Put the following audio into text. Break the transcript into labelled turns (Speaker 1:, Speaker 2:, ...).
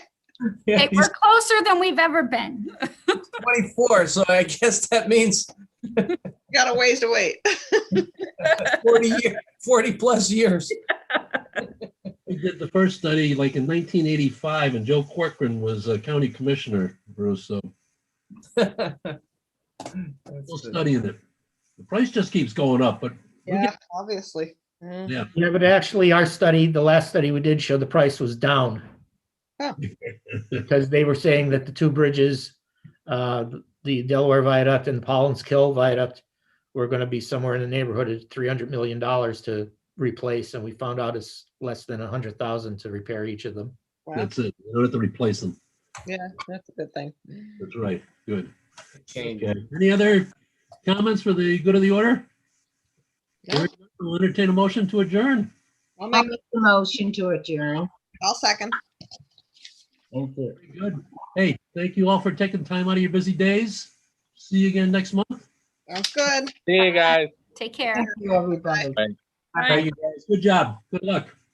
Speaker 1: Yeah,
Speaker 2: Okay,
Speaker 1: he's
Speaker 2: we're closer than we've ever been.
Speaker 1: 24, so I guess that means
Speaker 3: Got a ways to wait.
Speaker 1: 40 year, 40 plus years.
Speaker 4: We did the first study like in 1985 and Joe Corcoran was a county commissioner, Bruce, so we'll study it. The price just keeps going up, but
Speaker 3: Yeah, obviously. Mm.
Speaker 5: Yeah, but actually, our study, the last study we did show the price was down.
Speaker 3: Oh.
Speaker 5: Because they were saying that the two bridges, uh, the Delaware Viaduct and Paulins Kill Viaduct were gonna be somewhere in the neighborhood of three hundred million dollars to replace, and we found out it's less than a hundred thousand to repair each of them.
Speaker 3: Wow.
Speaker 4: that's it. We don't have to replace them.
Speaker 3: Yeah, that's a good thing.
Speaker 4: That's right. Good.
Speaker 1: Change.
Speaker 4: Okay. Any other comments for the good of the order?
Speaker 3: No.
Speaker 4: Hearing none, We'll entertain a motion to adjourn.
Speaker 3: I'll
Speaker 6: I
Speaker 3: make,
Speaker 6: make the motion to adjourn.
Speaker 3: I'll second.
Speaker 4: Very Good. Hey, thank you all for taking time out of your busy days. See you again next month.
Speaker 3: Sounds good.
Speaker 7: See you guys.
Speaker 2: Take care.
Speaker 6: Thank you, everybody.
Speaker 4: Good job. Good luck.